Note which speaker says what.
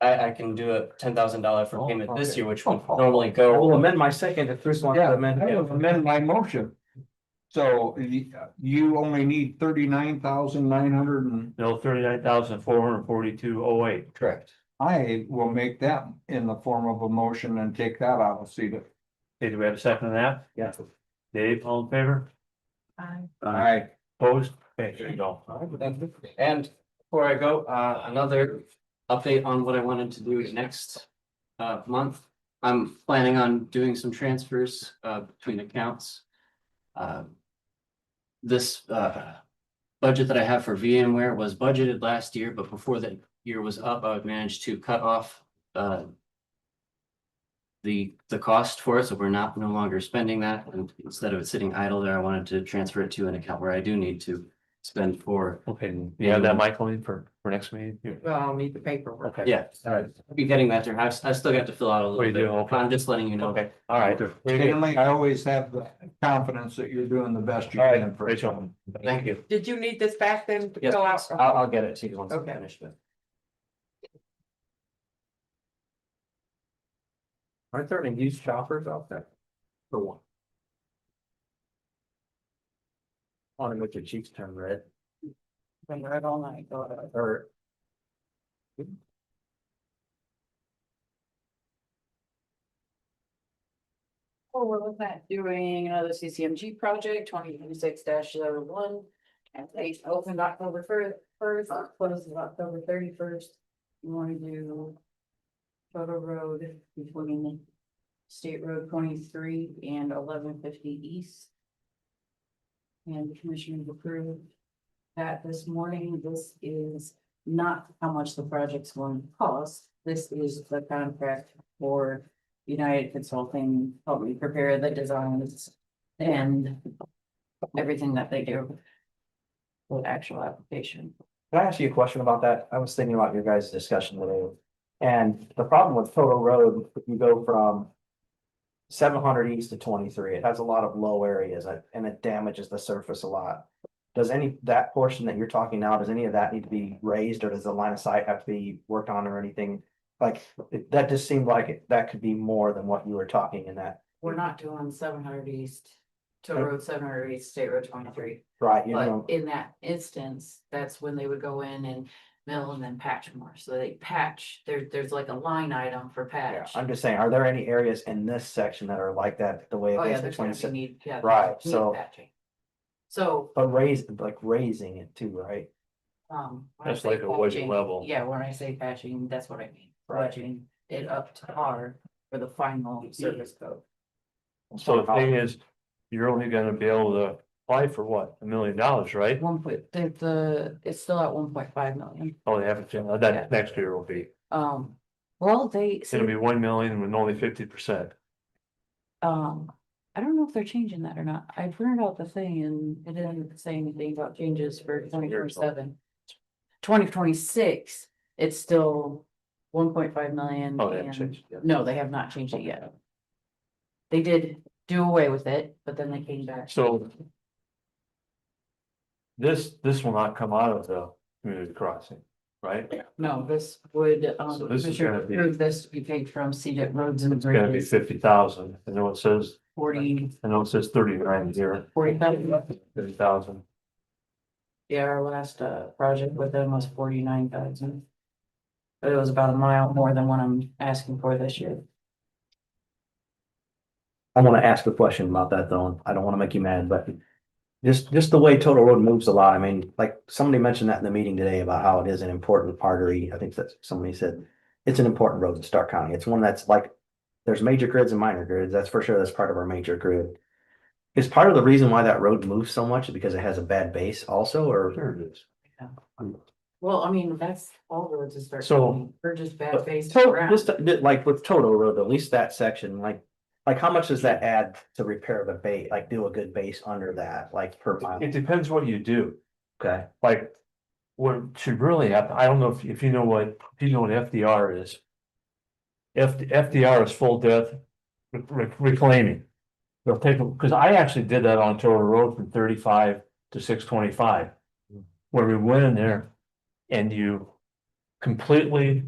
Speaker 1: I, I can do a ten thousand dollar for
Speaker 2: Oh,
Speaker 1: payment this
Speaker 2: okay.
Speaker 1: year, which would normally go.
Speaker 3: I will amend my second if Bruce wants
Speaker 2: Yeah,
Speaker 3: to
Speaker 2: I
Speaker 3: amend. it.
Speaker 2: will amend my motion. So you, you only need thirty-nine thousand nine hundred and
Speaker 4: No, thirty-nine thousand, four hundred and forty-two, oh eight.
Speaker 5: Correct.
Speaker 2: I will make that in the form of a motion and take that out of CEDA.
Speaker 4: Okay, do we have a second on that?
Speaker 3: Yeah.
Speaker 4: Dave, all in favor?
Speaker 2: I,
Speaker 4: Opposed? Okay, there you go.
Speaker 1: And before I go, uh, another update on what I wanted to do next uh, month. I'm planning on doing some transfers, uh, between accounts. Um, This, uh, budget that I have for VMware was budgeted last year, but before the year was up, I would manage to cut off, uh, the, the cost for it, so we're not, no longer spending that. And instead of it sitting idle there, I wanted to transfer it to an account where I do need to spend for
Speaker 4: Okay, you have that, Michael, in for, for next meeting? You-
Speaker 6: Well, I'll need the paperwork.
Speaker 4: Okay.
Speaker 1: Yeah, alright, I'll be getting that there, I've, I still got to fill out a
Speaker 4: Oh,
Speaker 1: little
Speaker 4: you do?
Speaker 1: bit,
Speaker 4: Okay.
Speaker 1: I'm just letting you know.
Speaker 4: Okay, all right. Very good.
Speaker 2: Stanley, I always have the confidence that you're doing the best you
Speaker 4: All
Speaker 2: can.
Speaker 4: right,
Speaker 2: for-
Speaker 4: Rachel.
Speaker 1: Thank you.
Speaker 6: Did you need this back then to
Speaker 1: Yes,
Speaker 6: fill out?
Speaker 1: I'll, I'll get it to you once I
Speaker 6: Okay.
Speaker 1: finish, but.
Speaker 3: Aren't there any used choppers out there? For one. Want to make your cheeks turn red
Speaker 6: Been right all night. go ahead.
Speaker 3: or?
Speaker 7: Well, we're looking at doing another CCMG project, twenty twenty-six one And they opened October fir- first, closes October thirty-first. You wanna do. Photo Road between State Road twenty-three and eleven fifty east. And the commission approved that this morning, this is not how much the project's going to cost. This is the contract for United Consulting helped me prepare the designs and everything that they do with actual application.
Speaker 3: Can I ask you a question about that? I was thinking about your guys' discussion today. And the problem with Toto Road, if you go from. Seven hundred east to twenty-three, it has a lot of low areas uh, and it damages the surface a lot. Does any, that portion that you're talking now, does any of that need to be raised or does the line of sight have to be worked on or anything? Like, it- that just seemed like it- that could be more than what you were talking in that,
Speaker 7: We're not doing seven hundred east to road seven hundred east, state road twenty-three.
Speaker 3: right? You
Speaker 7: But
Speaker 3: know,
Speaker 7: in that instance, that's when they would go in and mill and then patch more. So they patch, there, there's like a line item for
Speaker 3: yeah,
Speaker 7: patch.
Speaker 3: I'm just saying, are there any areas in this section that are like that, the way
Speaker 7: Oh,
Speaker 3: it
Speaker 7: yeah,
Speaker 3: is
Speaker 7: there's gonna
Speaker 3: between?
Speaker 7: be
Speaker 3: se-
Speaker 7: need, yeah.
Speaker 3: Right,
Speaker 7: need
Speaker 3: so-
Speaker 7: patching. So,
Speaker 3: But raise, like raising it too, right?
Speaker 7: um. when I
Speaker 4: That's
Speaker 7: say
Speaker 4: like it wasn't
Speaker 7: patching,
Speaker 4: level.
Speaker 7: Yeah, when I say patching, that's what I mean.
Speaker 3: Right.
Speaker 7: Budgeting it up to par for the final service code.
Speaker 4: So the thing is, you're only gonna be able to apply for what, a million dollars, right?
Speaker 7: One point, the, the, it's still at one point five million.
Speaker 4: Oh, they haven't, uh, that next year will be,
Speaker 7: Um, well, they,
Speaker 4: it'll
Speaker 7: said,
Speaker 4: be one million with only fifty percent.
Speaker 7: um, I don't know if they're changing that or not. I printed out the thing and it didn't say anything about changes for twenty twenty-seven. Twenty twenty-six, it's still one point five million.
Speaker 4: Oh, they haven't
Speaker 7: and-
Speaker 4: changed, yeah.
Speaker 7: No, they have not changed it yet. They did do away with it, but then they came back.
Speaker 4: So. This, this will not come out of the community crossing, right?
Speaker 7: No, this would,
Speaker 4: So
Speaker 7: um,
Speaker 4: this is
Speaker 7: Commissioner
Speaker 4: gonna be-
Speaker 7: approved this to be paid from CDIP roads and
Speaker 4: It's gonna be
Speaker 7: bridges,
Speaker 4: fifty thousand, I know it says,
Speaker 7: forty,
Speaker 4: I know it says thirty-nine here,
Speaker 7: forty thousand.
Speaker 4: thirty thousand.
Speaker 7: Yeah, our last, uh, project with them was forty-nine thousand. But it was about a mile more than what I'm asking for this year.
Speaker 3: I wanna ask a question about that though, and I don't wanna make you mad, but just, just the way Total Road moves a lot, I mean, like, somebody mentioned that in the meeting today about how it is an important artery, I think that's, somebody said. It's an important road in Stark County, it's one that's like, there's major grids and minor grids, that's for sure, that's part of our major grid. Is part of the reason why that road moves so much because it has a bad base also, or?
Speaker 4: There it is.
Speaker 7: Well, I mean, that's all roads is start.
Speaker 4: So-
Speaker 7: We're just bad based
Speaker 3: So,
Speaker 7: around.
Speaker 3: just uh, like with Total Road, at least that section, like, like how much does that add to repair the base, like do a good base under that, like per mile?
Speaker 4: It depends what you do,
Speaker 3: Okay.
Speaker 4: like. What should really happen, I don't know if, if you know what, if you know what FDR is. F, FDR is full depth re- re- reclaiming. They'll take, because I actually did that on Tower Road from thirty-five to six twenty-five. Where we went in there and you completely